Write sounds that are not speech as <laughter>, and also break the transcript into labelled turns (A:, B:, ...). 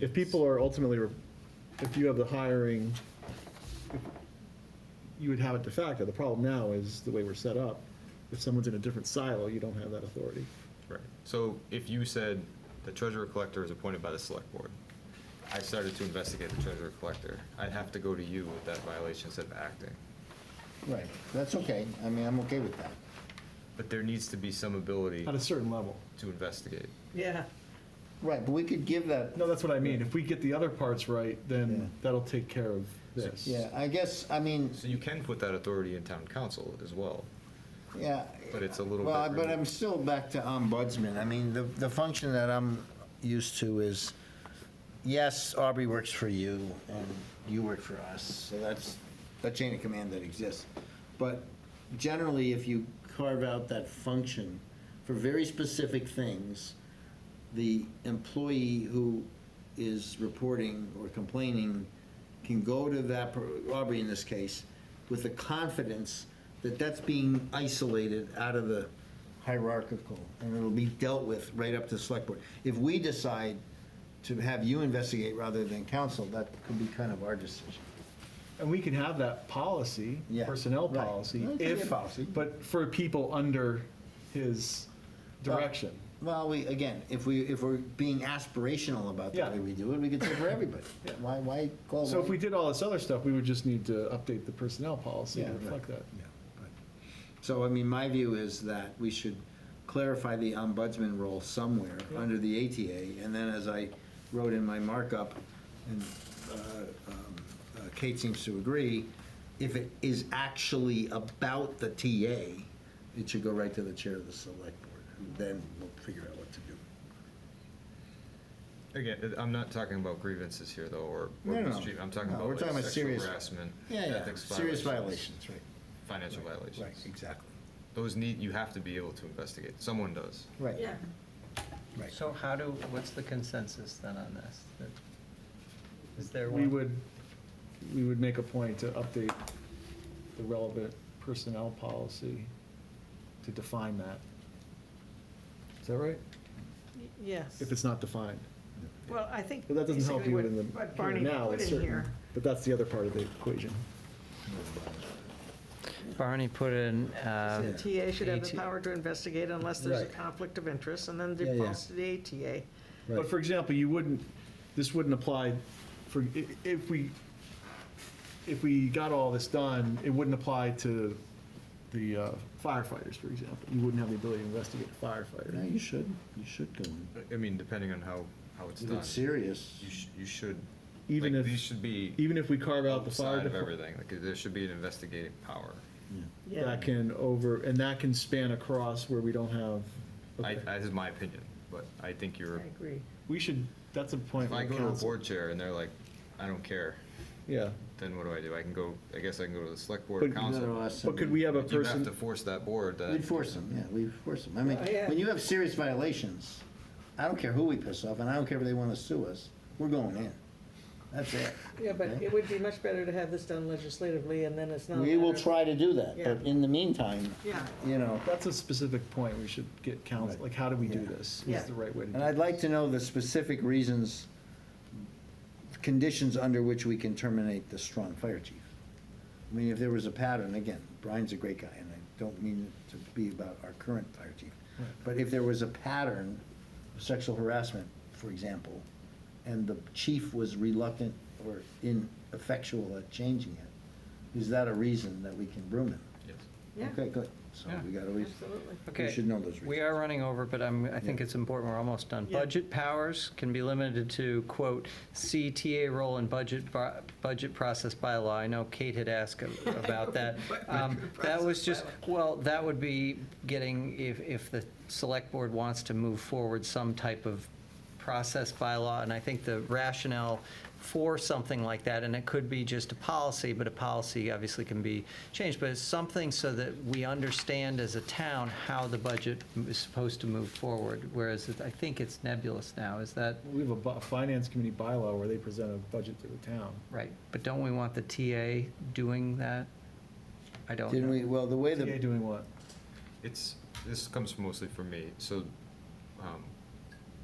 A: If people are ultimately, re- if you have the hiring, if- you would have it de facto. The problem now is the way we're set up. If someone's in a different silo, you don't have that authority.
B: Right. So if you said the treasurer collector is appointed by the select board, I started to investigate the treasurer collector, I'd have to go to you with that violation instead of acting.
C: Right, that's okay, I mean, I'm okay with that.
B: But there needs to be some ability
A: At a certain level.
B: to investigate.
D: Yeah.
C: Right, but we could give that,
A: No, that's what I mean. If we get the other parts right,
C: Yeah.
A: then that'll take care of this.
C: yeah, I guess, I mean,
B: So you can put that authority in town council as well,
C: yeah.
B: but it's a little bit.
C: Well, but
B: removed.
C: I'm still back to ombudsman, I mean, the, the function that I'm used to is, yes, Aubrey works for you, and you work for us, so that's, that chain of command that exists. But generally, if you carve out that function for very specific things, the employee who is reporting or complaining can go to that, per- Aubrey in this case, with the confidence that that's being isolated out of the hierarchical, and it'll be dealt with right up to the select board. If we decide to have you investigate rather than counsel, that could be kind of our decision.
A: And we can have that policy,
C: Yeah,
A: personnel
C: right.
A: policy,
C: It could be a
A: if,
C: policy.
A: but for people under his
C: Uh,
A: direction.
C: Well, we, again, if we, if we're being aspirational about the
A: Yeah.
C: way we do it, we could say for everybody. Why, why call?
A: So if
C: one-
A: we did all this other stuff, we would just need to update the personnel policy
C: Yeah,
A: to
C: right.
A: reflect that.
C: Yeah, but- So, I mean, my view is that we should clarify the ombudsman role somewhere under the ATA, and then as I wrote in my markup, and uh, um, uh, Kate seems to agree, if it is actually about the TA, it should go right to the chair of the select board, and then we'll figure out what to do.
B: Again, I'm not talking about grievances here though, or
C: No,
B: or
C: no, no.
B: mistreatment, I'm talking
C: No, we're
B: about
C: talking
B: like
C: about
B: sexual
C: serious-
B: harassment,
C: Yeah, yeah,
B: ethics
C: serious
B: violations,
C: violations, right.
B: financial
C: Right,
B: violations.
C: exactly.
B: Those need, you have to be able to investigate, someone does.
C: Right,
D: Yeah.
C: right.
E: So how do, what's the consensus then on this? That- Is there one?
A: We would, we would make a point to update the relevant personnel policy to define that. Is that right?
D: Yes.
A: If it's not defined.
D: Well, I think.
A: But that doesn't help
D: basically
A: you
D: what-
A: in the,
D: What
A: here
D: Barney
A: and now,
D: put
A: it's
D: in
A: certain.
D: here.
A: But that's the other part of the equation.
E: Barney put in,
D: The
E: um,
D: TA should have the
E: ATA.
D: power to investigate unless there's a
C: Right.
D: conflict of interest, and then
C: Yeah, yeah.
D: defaults to the ATA.
A: But for example, you wouldn't, this wouldn't apply for, i- if we, if we got all this done, it wouldn't apply to the uh, firefighters, for example. You wouldn't have the ability to investigate a
C: No,
A: firefighter.
C: you should, you should go in.
B: I mean, depending on how, how it's
C: If
B: done.
C: it's serious,
B: You sh you should,
A: Even
B: like,
A: if-
B: these should be
A: Even if we carve out the fire
B: outside of
A: department,
B: everything, like, there should be an investigative power.
D: Yeah.
A: that can over, and that can span across where we don't have.
B: I,
A: okay.
B: that is my opinion, but I think
D: I
B: you're,
D: agree.
A: We should, that's a point.
B: if
A: where
B: I go to a
A: council-
B: board chair and they're like, I don't care,
A: Yeah,
B: then what do I do? I can go, I guess I can go to the select board
A: But
B: or
A: you
B: council.
A: but could we have a
B: But You have
A: person,
B: to force that board that.
C: We'd force them, Uh, yeah, we'd force them. I mean,
D: Yeah, yeah.
C: when you have serious violations, I don't care who we piss off, and I don't care if they want to sue us, we're going in. That's it.
D: Yeah, but
C: Okay?
D: it would be much better to have this done legislatively, and then it's not.
C: We will
D: matter-
C: try to do that, but
D: Yeah.
C: in the meantime,
D: Yeah.
C: you know,
A: that's a specific point we should get council,
C: Right.
A: like, how do we do
C: Yeah.
A: this?
D: Yeah.
A: Is the right way to do
C: and I'd
A: it?
C: like to know the specific reasons, conditions under which we can terminate the strong fire chief. I mean, if there was a pattern, again, Brian's a great guy, and I don't mean it to be about our current fire chief, but if there was a pattern of sexual harassment, for example, and the chief was reluctant or ineffectual at changing it, is that a reason that we can broom him?
B: Yes.
D: Yeah,
C: Okay, good, so we got a reason.
D: absolutely.
C: We
E: Okay,
C: should know those
E: we
C: reasons.
E: are running over, but I'm, I think
C: Yeah.
E: it's important, we're almost done.
D: Yeah.
E: Budget powers can be limited to, quote, CTA role in budget, bu- budget process bylaw. I know Kate had asked a- about
C: <laughs>
E: that. Um, That was just, well, that would be getting, if, if the select board wants to move forward some type of process bylaw, and I think the rationale for something like that, and it could be just a policy, but a policy obviously can be changed, but it's something so that we understand as a town how the budget is supposed to move forward, whereas it- I think it's nebulous now, is that
A: We have a bu- finance committee bylaw where they present a budget to the town.
E: right? But don't we want the TA doing that? I don't
C: Didn't we,
E: know.
C: well, the way
A: TA
C: the,
A: doing what?
B: It's, this comes mostly from me, so, um,